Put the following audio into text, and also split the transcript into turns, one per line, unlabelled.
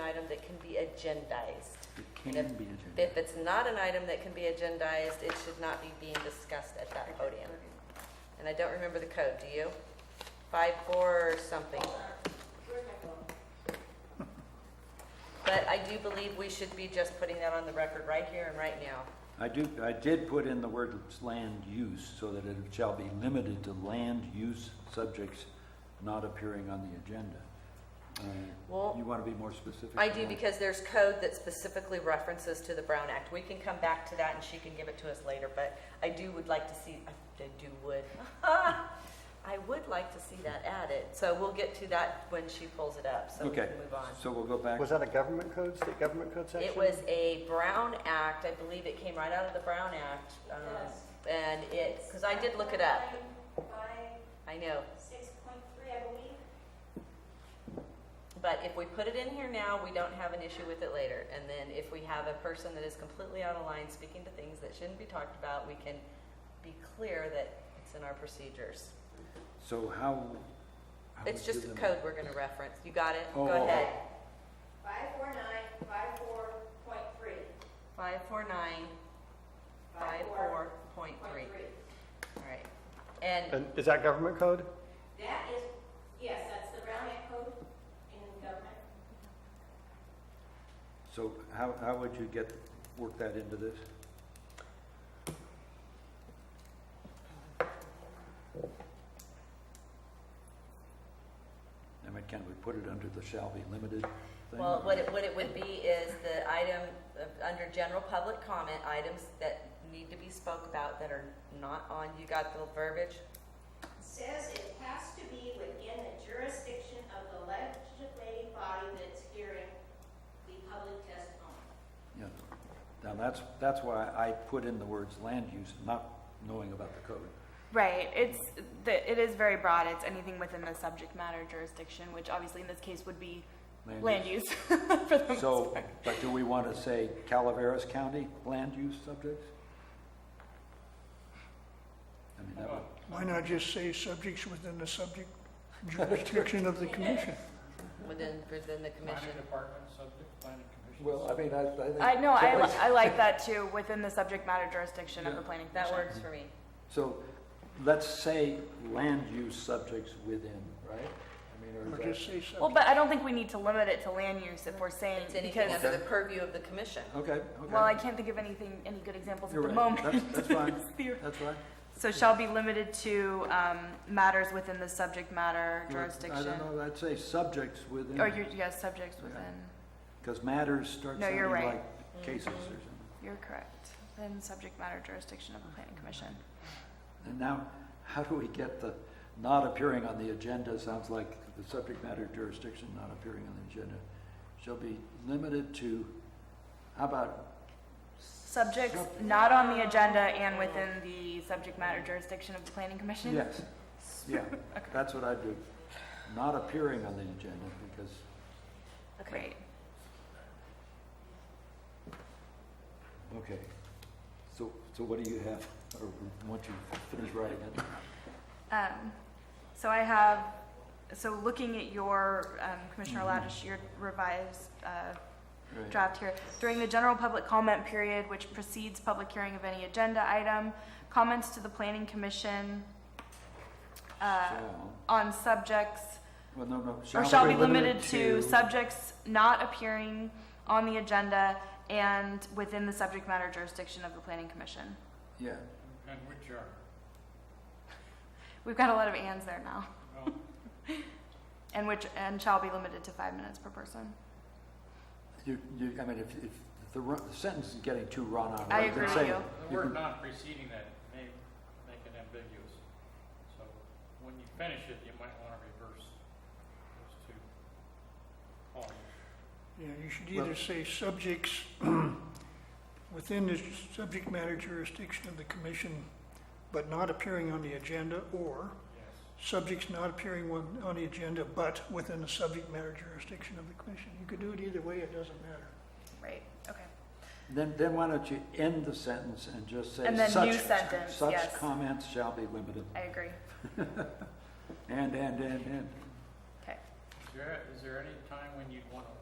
item that can be agendized.
It
And
can be
If
agenda.
it's not an item that can be agendized, it should not be being discussed at that podium. And I don't remember the code, do you? Five, four, or something. But I do believe we should be just putting that on the record right here and right now.
I do, I did put in the word land use so that it shall be limited to land use subjects not appearing on the agenda. Uh,
Well,
You want to be more specific?
I
than
do
that?
because there's code that specifically references to the Brown Act. We can come back to that and she can give it to us later, but I do would like to see, I do would. I would like to see that added, so we'll get to that when she pulls it up, so we
Okay,
can move on.
so we'll go back.
Was that a government code, state government code section?
It was a Brown Act, I believe it came right out of the Brown Act. um, And it, because I did look it up,
By
I know.
six point three, I believe.
But if we put it in here now, we don't have an issue with it later. And then if we have a person that is completely out of line speaking to things that shouldn't be talked about, we can be clear that it's in our procedures.
So how? how
It's
would
just
you
a
limit-
code we're gonna reference. You got it? Go
Oh, oh,
ahead.
Five four nine, five four point three.
Five four nine, five four point three. All right. And
And is that government code?
That is, yes, that's the Brown Act code in government.
So how, how would you get, work that into this? I mean, can we put it under the shall be limited thing?
Well, what it, what it would be is the item, of- under general public comment, items that need to be spoke about that are not on, you got the verbiage?
Says it has to be within the jurisdiction of the legislating body that's hearing the public testimony.
Yeah. Now, that's, that's why I put in the words land use, not knowing about the code.
Right. It's the, it is very broad. It's anything within the subject matter jurisdiction, which obviously in this case would be
Land
land, use. for the most
So,
part.
but do we want to say Calaveras County land use subjects? I mean, that would.
Why not just say subjects within the subject jurisdiction of the commission?
Mm-hmm.
Within, within the commission.
Planning department subject, planning commission.
Well, I mean, I, I think.
I know I, li- I like that too within the subject matter jurisdiction of
Yeah.
the planning
That
commission.
works for me.
So let's say land use subjects within, right? I mean,
Or
or is
just say
Well,
subject,
but I don't think we need to limit it to land use if we're saying
It's anything
because
under the
Okay.
purview of the commission.
that, okay, okay.
well I can't think of anything any good examples
You're
at the
right.
moment.
That's- that's fine.
It's theory.
That's right.
So shall be limited to um, matters within the subject matter
You're- I
jurisdiction.
don't know, I'd say subjects within,
Or your yes, subjects within.
because matters start
No,
sounding
you're right.
like cases or something.
You're correct. Then subject matter jurisdiction of the planning commission.
And now, how do we get the not appearing on the agenda, sounds like the subject matter jurisdiction not appearing on the agenda, shall be limited to, how about
Subjects not on the agenda and within the subject matter jurisdiction of the planning commission?
Yes, yeah, that's what I do. Not appearing on the agenda because,
Great.
okay. So, so what do you have, or once you finish writing it?
Um, so I have, so looking at your, um, Commissioner
Mhm.
Ladish, your revised, uh,
Right.
draft here. During the general public comment period, which precedes public hearing of any agenda item, comments to the planning commission, uh,
Shall-
on subjects
Well, no, no.
or shall be limited to subjects not appearing on the agenda and within the subject matter jurisdiction of the planning commission.
Yeah,
And which are,
We've got a lot of ands there now,
well,
and which, and shall be limited to five minutes per person.
you, you, I mean, if, if the ru- the sentence is getting too run on.
I
you can
agree with
say-
you.
the
you
word
can-
not preceding that may make it ambiguous. So when you finish it, you might want to reverse those two columns.
yeah, you should
Well-
either say subjects within the subject matter jurisdiction of the commission, but not appearing on the agenda, or
Yes,
subjects not appearing on, on the agenda, but within the subject matter jurisdiction of the commission. You could do it either way, it doesn't matter.
Right, okay.
Then, then why don't you end the sentence and just say.
And then
such-
new sentence,
Such
yes.
comments shall be limited,
I agree.
and, and, and, and.
Okay.
Is there, is there any time when you'd want to